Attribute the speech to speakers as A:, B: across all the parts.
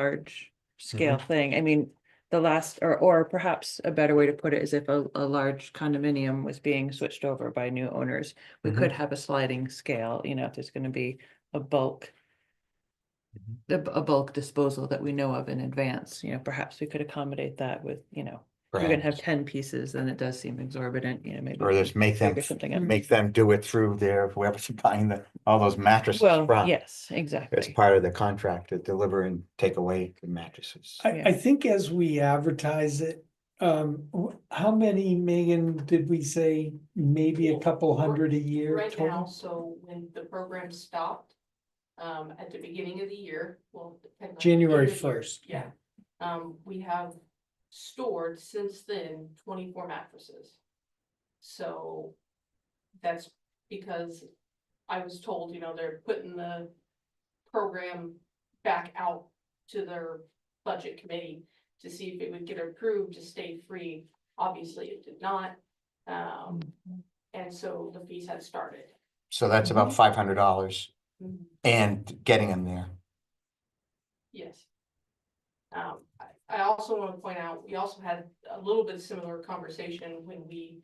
A: large scale
B: Mm-hmm.
A: thing. I mean, the last, or, or perhaps a better way to put it is if a, a large condominium was being switched over by new owners, we
B: Mhm.
A: could have a sliding scale, you know, if there's gonna be a bulk
B: Mhm.
A: a, a bulk disposal that we know of in advance, you know, perhaps we could acomodate that with, you know, if you're gonna have
B: Perhaps.
A: ten pieces, then it does seem exorbitant, you know, maybe.
B: Or
A: we
B: just
A: can
B: make them,
A: figure something out.
B: make them do it through their, whoever's buying the, all those mattresses
A: Well,
B: from.
A: yes,
B: It's
A: exactly.
B: part of the contract to deliver and take away the mattresses.
C: I,
A: Yeah.
C: I think as we advertise it, um, wh- how many, Megan, did we say? Maybe a couple hundred a year
D: Right now,
C: total?
D: so when the program stopped, um, at the beginning of the year, well. depend on-
C: January
D: end of year,
C: 1st.
D: Yeah, um, we have stored since then twenty-four mattresses. So that's because I was told, you know, they're putting the program back out to their budget committee to see if it would get approved to stay free. Obviously, it did not. Um, and so the fees have started.
B: So that's about
A: Mm-hmm.
B: five hundred dollars and getting them there.
D: Yes. Um, I, I also want to point out, we also had a little bit similar conversation when we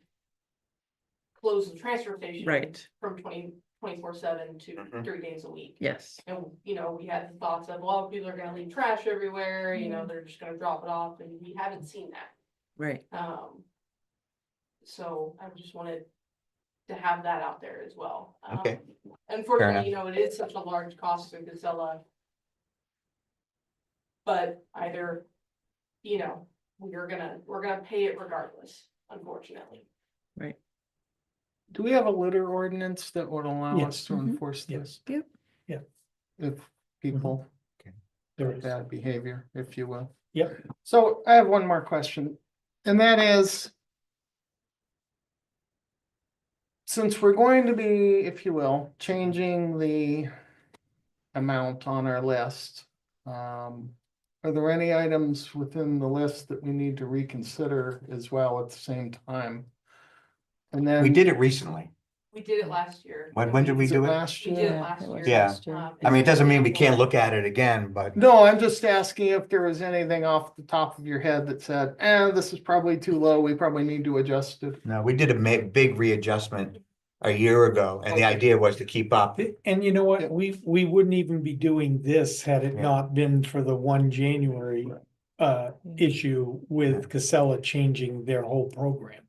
D: closed the transfer station.
A: Right,
D: From twenty, twenty-four seven to
B: Mhm.
D: three days a week.
A: yes.
D: And, you know, we had the thoughts of, well, people are gonna leave trash everywhere, you know, they're just gonna drop it off, and we haven't seen that.
A: Right,
D: Um. So I just wanted to have that out there as well. Um,
B: Okay.
D: Unfortunately, you know, it is such a large cost to Casella. But either, you know, we're gonna, we're gonna pay it regardless, unfortunately.
E: Do we have a litter ordinance that would allow
C: Yes.
E: us to
A: Mhm.
E: enforce
C: Yes.
E: this?
A: Yep.
C: Yeah. Mm-hmm.
E: If people
C: There
E: do
C: is.
E: bad behavior, if you will.
C: Yep.
E: So I have one more question, and that is. Since we're going to be, if you will, changing the amount on our list. Um, are there any items within the list that we need to reconsider as well at the same time? And then.
B: We did it recently.
D: We did it last year.
B: When- when did we
E: Is it
B: do it?
E: Last
D: We
E: year.
D: did it
A: Yeah,
D: last
A: it was
D: year.
B: last
A: year.
D: Um,
B: I mean, it doesn't mean we can't look at it again,
A: Mm.
B: but
E: No, I'm just asking if there was anything off the top of your head that said, eh, this is probably too low, we probably need to adjust it.
B: no, we did a ma- big readjustment a year ago and the
E: Okay.
B: idea was to keep up.
C: Th- And you know
E: Yeah.
C: what? We, we wouldn't even be doing this had it
B: Yeah.
C: not been for the one January uh, issue with Casella changing their whole program.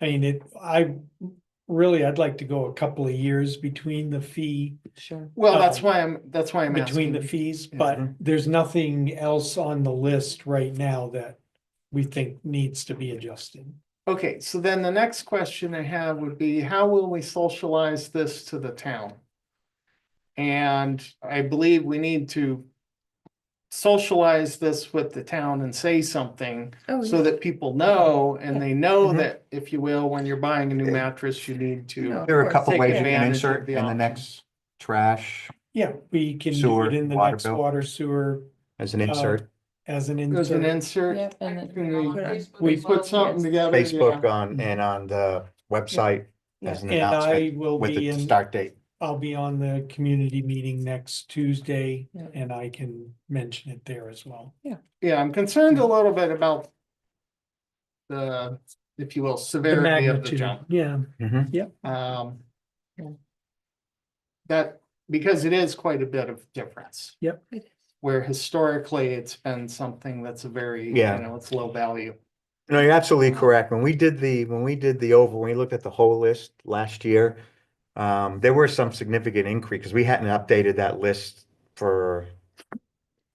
C: I mean, it, I, really, I'd like to go a couple of years between the fee
A: sure.
E: Well, that's
C: Um,
E: why I'm, that's why I'm
C: between the
E: asking.
C: fees, but
B: Mhm.
C: there's nothing else on the list right now that we think needs to be adjusted.
E: Okay, so then the next question I have would be, how will we socialize this to the town? And I believe we need to socialize this with the town and say something
A: Oh,
E: so that people know and they know
C: Mm-hmm.
B: Mhm.
E: that, if you will, when you're buying a new
B: Yeah.
E: mattress, you need to.
A: No.
B: There are a
A: course,
B: couple
E: take
B: ways you can
E: advantage of
B: insert
E: the
B: in the
E: option.
B: next trash
C: Yeah, we can do
B: Sewer,
C: it in the
B: water
C: next
B: bill.
C: water sewer
B: as
A: Oh.
B: an insert,
C: as an
E: There's an
C: insert.
E: insert.
A: Yep, and
D: I
A: then-
D: put it on
E: we-
D: Facebook
E: We
D: as well.
E: put something together. yeah.
B: Facebook on, and on the website as an
C: Mm. And I
B: announcement
C: will
B: with
C: be
B: the
C: in,
B: start date.
C: I'll be on the community meeting next Tuesday
A: Yeah.
C: and I can mention it there as well.
E: Yeah, I'm concerned a little bit about the, if you will,
C: The
E: severity of the
C: magnitude,
E: jump.
C: yeah.
B: Mhm.
E: Um,
A: Yeah.
E: that, because it is quite a bit of difference,
A: It is.
E: where historically it's been something that's a very, you
B: Yeah.
E: know, it's low value.
B: No, you're absolutely correct. When we did the, when we did the over, when we looked at the whole list last year, um, there were some significant increase, because we hadn't updated that list for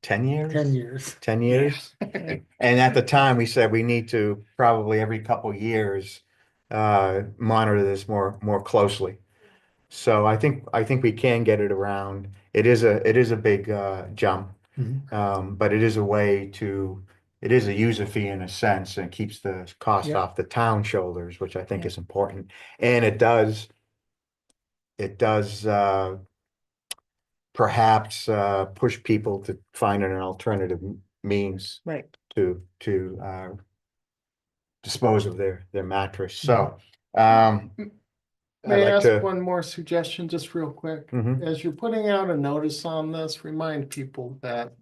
B: ten years?
C: years.
B: Ten years? And at the time, we said we need to probably every couple years, uh, monitor this more, more closely. So I think, I think we can get it around. It is a, it is a big, uh, jump.
C: Mhm.
B: Um, but it is a way to, it is a user fee in a sense and it keeps the cost
C: Yeah.
B: off the town shoulders, which I think
A: Yeah.
B: is important. And it does, it does, uh, perhaps, uh, push people to find an alternative m- means
A: Right,
B: to, to, uh, dispose of their, their mattress, so, um. I'd
E: Mm. May I
B: like
E: ask
B: to,
E: one more suggestion, just real quick?
B: Mhm.
E: As you're putting out a notice on this, remind people that